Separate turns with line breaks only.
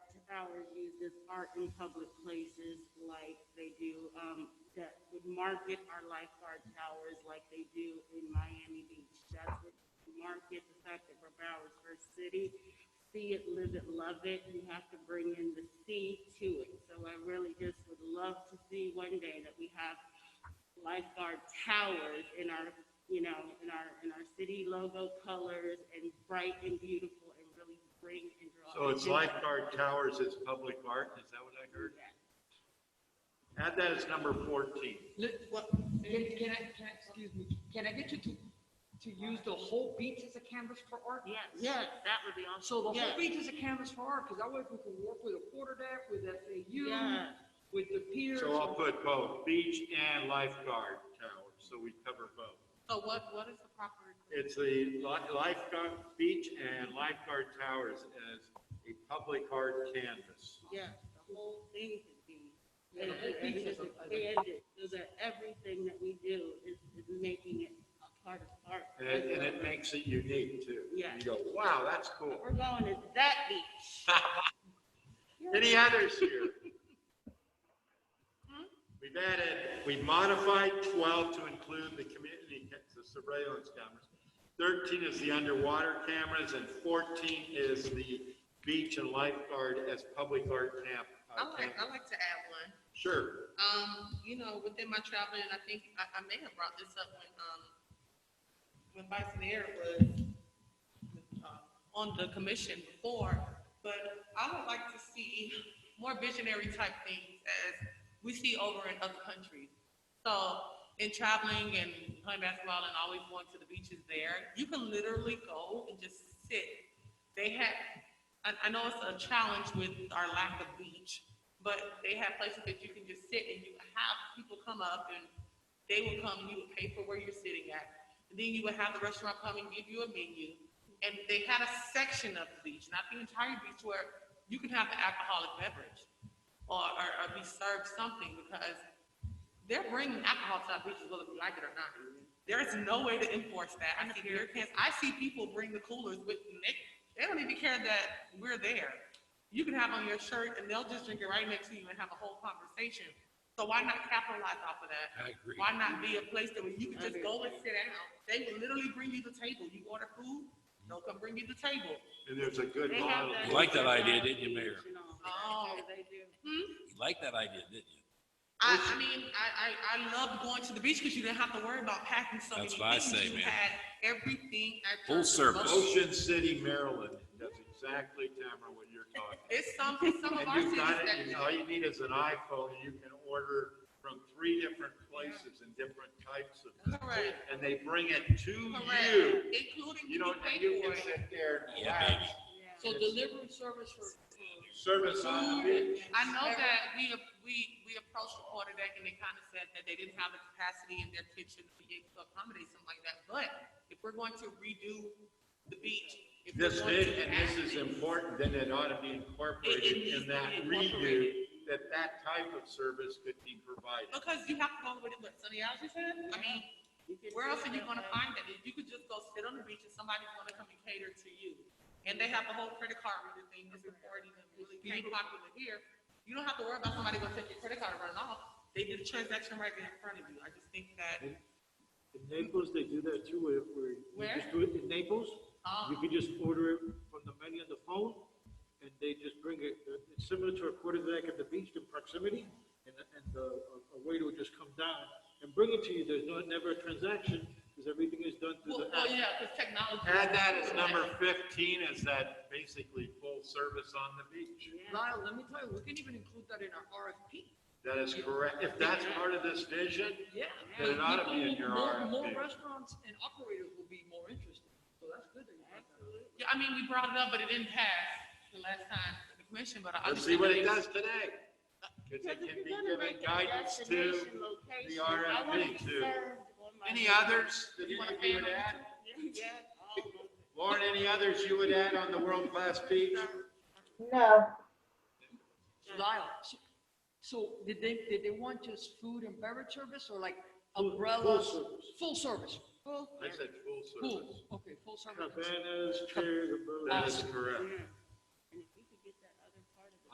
Howard uses art in public places like they do, um, that would market our lifeguard towers like they do in Miami Beach. That's what we market the fact that we're Broward's first city. See it, live it, love it. You have to bring in the C to it. So I really just would love to see one day that we have lifeguard towers in our, you know, in our, in our city logo colors and bright and beautiful and really bring and draw.
So it's
attention.
lifeguard towers is public art, is that what I heard? Add that as number fourteen.
Look,
Well,
Can, can I, can I, excuse me, can I get you to, to use the whole beach as a canvas for art?
yes, yes, that would be awesome.
So the
Yes.
whole beach is a canvas for art, because that way we can work with a quarter deck, with FAU,
Yeah.
with the piers.
So uh, I'll put both, beach and lifeguard towers, so we cover both.
So Oh, what, what is the proper?
It's the li- lifeguard, beach and lifeguard towers as a public art canvas.
Yeah, the whole thing could be.
Yeah, the whole
and
piece
just
is a-
expand it So that everything that we do is, is making it a part of art.
And, and it makes it unique too.
Yeah.
You go, wow, that's cool.
We're going to that beach.
Any others here? We've added, we modified 12 to include the community, ca- the surveillance cameras. 13 is the underwater cameras and 14 is the beach and lifeguard as public art camp. uh,
I like, I
cameras.
like to add one.
Sure.
Um, you know, within my traveling, I think I, I may have brought this up when, um, when Vice Mayor was uh, on the commission before, but I would like to see more visionary type things as we see over in other countries. So in traveling and playing basketball and always going to the beaches there, you can literally go and just sit. They had, I, I know it's a challenge with our lack of beach, but they have places that you can just sit and you have people come up and they will come, you would pay for where you're sitting at. And then you would have the restaurant come and give you a menu. And they had a section of the beach, not the entire beach, where you can have an alcoholic beverage or, or, or be served something because they're bringing alcohol to our beaches, whether we like it or not. There is no way to enforce that. I see beer cans, I see people bring the coolers with, them. they, they don't even care that we're there. You can have on your shirt and they'll just drink it right next to you and have a whole conversation. So why not capitalize off of that?
I agree.
Why not be a place that where you can just go and sit down? They will literally bring you the table. You order food, they'll come bring you the table.
And there's a good
They have
model.
that-
You like that idea, didn't you, Mayor?
You know,
Oh.
yeah, They do.
You liked that idea, didn't you?
I, I mean, I, I, I loved going to the beach because you didn't have to worry about packing so many
That's what I
things.
say,
You
man.
had everything at
Full
your
service.
disposal.
Ocean City, Maryland does exactly, Tamara, what you're talking.
It's some, it's some of our
And you've
cities
got
that
it, you-
do.
all you need is an iPhone, and you can order from three different places and different types of.
Correct.
And they bring it to
Correct,
you.
including
You
you
don't,
pay
you
for
can
it.
sit there and
Yeah, baby.
relax.
Yeah.
So delivery service for, for
Service on the beach.
I know that we, we, we approached the quarter deck and they kind of said that they didn't have the capacity in their kitchen to be able to accommodate something like that. But if we're going to redo the beach. if we're
This
going
is,
to
and this is
add-
important, then it ought to be
It- it
incorporated
needs
in
to
that
be
redo,
incorporated.
that that type of service could be provided.
Because you have to go with what Sunny Algae said. I mean,
You can
where
do
else are you
that
gonna
way.
find that? If you could just go sit on the beach and somebody's gonna come and cater to you. And they have a whole credit card reader thing that's important and really came popular here. You don't have to worry about somebody gonna take your credit card and run off. They did a transaction right there in front of you. I just think that,
In Naples, they do that too, where, where
Where?
you just do it in Naples.
um,
You can just order it from the menu on the phone, and they just bring it, it's similar to a quarter deck at the beach in proximity, and, and uh, a a waiter will just come down and bring it to you, there's no, never a transaction, because everything is done through
well,
the
well,
app.
yeah, cause technology.
Add that as number fifteen, is that basically full service on the beach.
Lyle, let me tell you, we can even include that in our RFP.
That is correct. If that's part of this vision,
Yeah.
Then it ought to be in your
More- More
RFP.
restaurants and operators will be more interested, so that's good. that you brought that up.
Yeah, I mean, we brought it up, but it didn't pass the last time in the commission, but I
Let's see what it
understand
does
that
today. Because
Because if
it can
you're
be
gonna
given
make a
guidance to
destination location,
the
I wanna
RFP
be
too.
served on my-
Any others that you
You wanna
you would add?
ban them?
Yeah, all of them.
Lauren, any others you would add on the world-class beach?
No,
Lyle, so- so did they, did they want just food and beverage service or like
Full-
umbrellas?
full service.
Full
I
service.
said full service.
Full, okay, full service.
Ah,
Cabanas, chairs, umbrellas.
That is correct.
Yeah.